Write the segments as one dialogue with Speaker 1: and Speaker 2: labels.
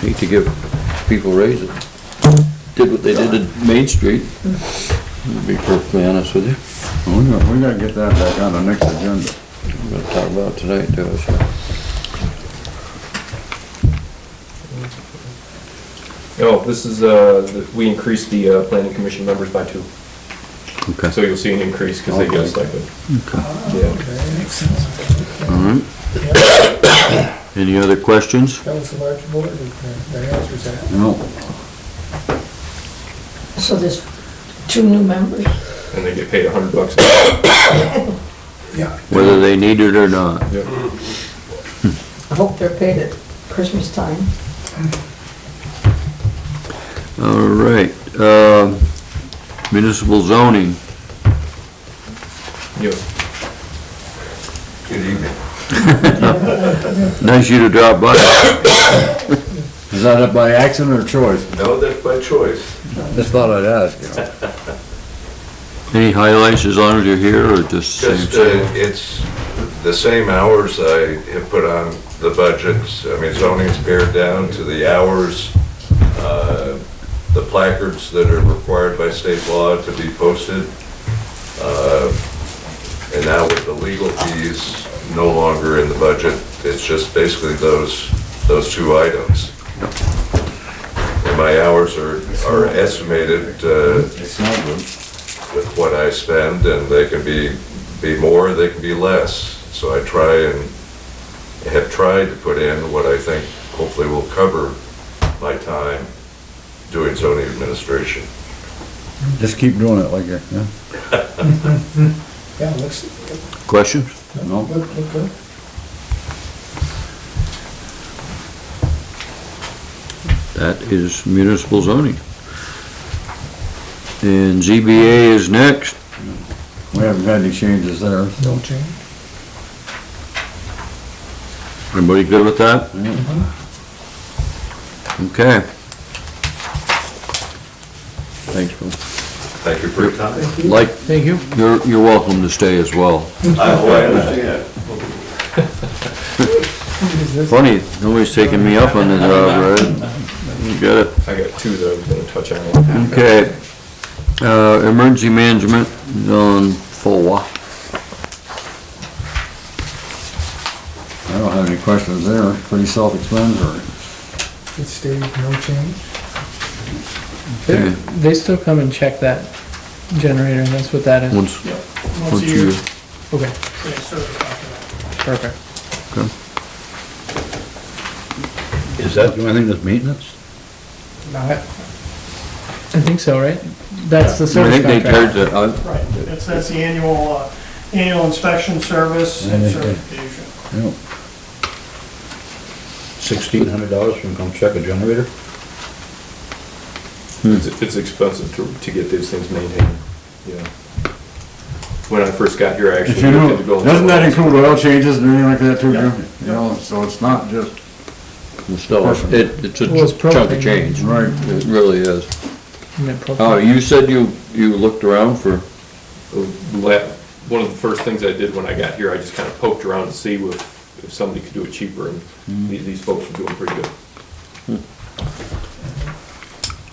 Speaker 1: Hate to give people raises. Did what they did at Main Street, to be perfectly honest with you.
Speaker 2: We gotta, we gotta get that back on the next agenda.
Speaker 1: We're gonna talk about it tonight, though, so.
Speaker 3: Oh, this is, uh, the- we increased the uh, planning commission members by two, so
Speaker 2: Okay.
Speaker 3: you'll see an increase because they get a stipend. Yeah.
Speaker 2: Any other questions?
Speaker 4: That was the large board, and that answers that.
Speaker 2: No.
Speaker 5: So there's two new members.
Speaker 3: And they get paid a hundred bucks.
Speaker 4: Yeah.
Speaker 2: Whether they need it or not.
Speaker 3: Yeah.
Speaker 5: I hope they're paid at Christmas time.
Speaker 2: All right, um, municipal zoning.
Speaker 3: Yeah.
Speaker 2: Nice you to drop by.
Speaker 1: Is that by accident or choice?
Speaker 6: No, that's by choice.
Speaker 1: Just thought I'd ask.
Speaker 2: Any highlights as long as you're here or just the
Speaker 6: Just, uh,
Speaker 2: same?
Speaker 6: it's the same hours I have put on the budgets. I mean, zoning's pared down to the hours, uh, the placards that are required by state law to be posted. Uh, And now with the legal fees no longer in the budget, it's just basically those, those two items. And my hours are, are estimated, uh, with what I spend, and they can be, be more, they can be less. So I try and have tried to put in what I think hopefully will cover my time doing zoning administration.
Speaker 2: Just keep doing it like that, yeah.
Speaker 4: Yeah, it looks,
Speaker 2: Questions?
Speaker 4: look, look good.
Speaker 2: That is municipal zoning. And ZBA is next.
Speaker 1: We haven't had any changes there.
Speaker 4: No change.
Speaker 2: Everybody good with that? Okay.
Speaker 1: Thanks, Bill.
Speaker 6: Thank you for your time.
Speaker 2: Like, Thank you. You're, you're welcome to stay as well.
Speaker 6: I understand.
Speaker 2: Funny, nobody's taking me up on the job, right? You got it.
Speaker 3: I got two that I was gonna touch on.
Speaker 2: Okay. Uh, emergency management on four.
Speaker 1: I don't have any questions there, pretty self-explanatory.
Speaker 4: It stayed, no change.
Speaker 7: They,
Speaker 2: Okay.
Speaker 7: they still come and check that generator, and that's what that is.
Speaker 2: Once, once you,
Speaker 7: Okay, perfect.
Speaker 8: Is that the only thing that's maintenance?
Speaker 4: Not,
Speaker 7: I think so, right? That's the
Speaker 2: I
Speaker 7: service
Speaker 2: think they
Speaker 7: contract.
Speaker 2: charge that, uh,
Speaker 9: Right, it's, that's the annual, uh, annual inspection service and certification.
Speaker 8: Sixteen hundred dollars for them to come check a generator?
Speaker 3: It's, it's expensive to, to get these things maintained, yeah. When I first got here, I
Speaker 2: If you
Speaker 3: actually looked
Speaker 2: do,
Speaker 3: at the building.
Speaker 2: doesn't that include oil changes and anything like that too,
Speaker 9: Yeah.
Speaker 2: Jim?
Speaker 1: You know, so it's not just.
Speaker 2: Still,
Speaker 1: It, it's a
Speaker 7: Well, it's
Speaker 1: chunk of
Speaker 7: propane.
Speaker 1: change.
Speaker 2: Right.
Speaker 1: It really is.
Speaker 7: And then propane.
Speaker 2: Uh,
Speaker 1: Oh, you said you, you looked around for,
Speaker 3: The la- One of the first things I did when I got here, I just kinda poked around to see if, if somebody could do it cheaper, and
Speaker 2: Mm.
Speaker 3: the- these folks were doing pretty good.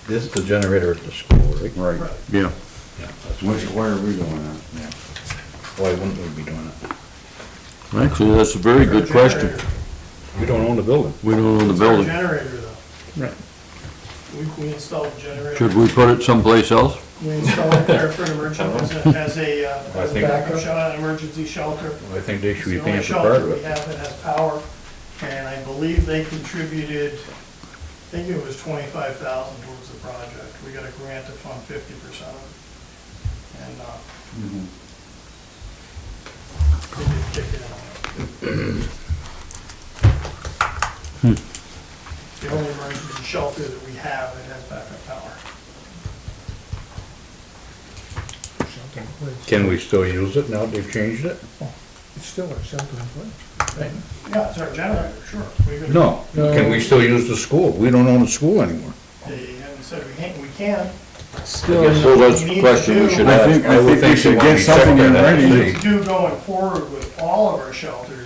Speaker 8: This is the generator at the school, right?
Speaker 2: right, yeah.
Speaker 8: Yeah, that's
Speaker 2: Which, why are we doing that?
Speaker 8: Why wouldn't we be doing it?
Speaker 2: Actually, that's a very good question.
Speaker 9: Generator.
Speaker 8: We don't own the building.
Speaker 2: We don't own the
Speaker 9: It's our
Speaker 2: building.
Speaker 9: generator though.
Speaker 7: Right.
Speaker 9: We, we installed a generator.
Speaker 2: Should we put it someplace else?
Speaker 9: We installed it there for an emergency, as a, as a, uh,
Speaker 8: I
Speaker 9: as a
Speaker 8: think-
Speaker 9: backup shelter, an emergency shelter.
Speaker 8: I think they
Speaker 9: It's
Speaker 8: should be
Speaker 9: the only
Speaker 8: paying for part
Speaker 9: shelter
Speaker 8: of
Speaker 9: we
Speaker 8: it.
Speaker 9: have that has power, and I believe they contributed, I think it was twenty-five thousand towards the project. We got a grant to fund fifty percent of it. And, uh,
Speaker 8: Mm-hmm.
Speaker 9: they did kick it out.
Speaker 8: Hmm.
Speaker 9: The only emergency shelter that we have that has backup power.
Speaker 8: Can we still use it now they've changed it?
Speaker 4: it's still a shelter in place.
Speaker 9: Yeah, it's our generator, sure. We could-
Speaker 8: No. Can we still use the school? We don't own the school anymore.
Speaker 9: They haven't said we can't, we can.
Speaker 7: Still,
Speaker 2: So that's the question we should ask.
Speaker 1: I think, I
Speaker 8: would
Speaker 1: think we
Speaker 8: they
Speaker 1: should
Speaker 8: want
Speaker 1: get
Speaker 8: to check
Speaker 1: something in
Speaker 8: that out.
Speaker 1: writing.
Speaker 9: do going forward with all of our shelters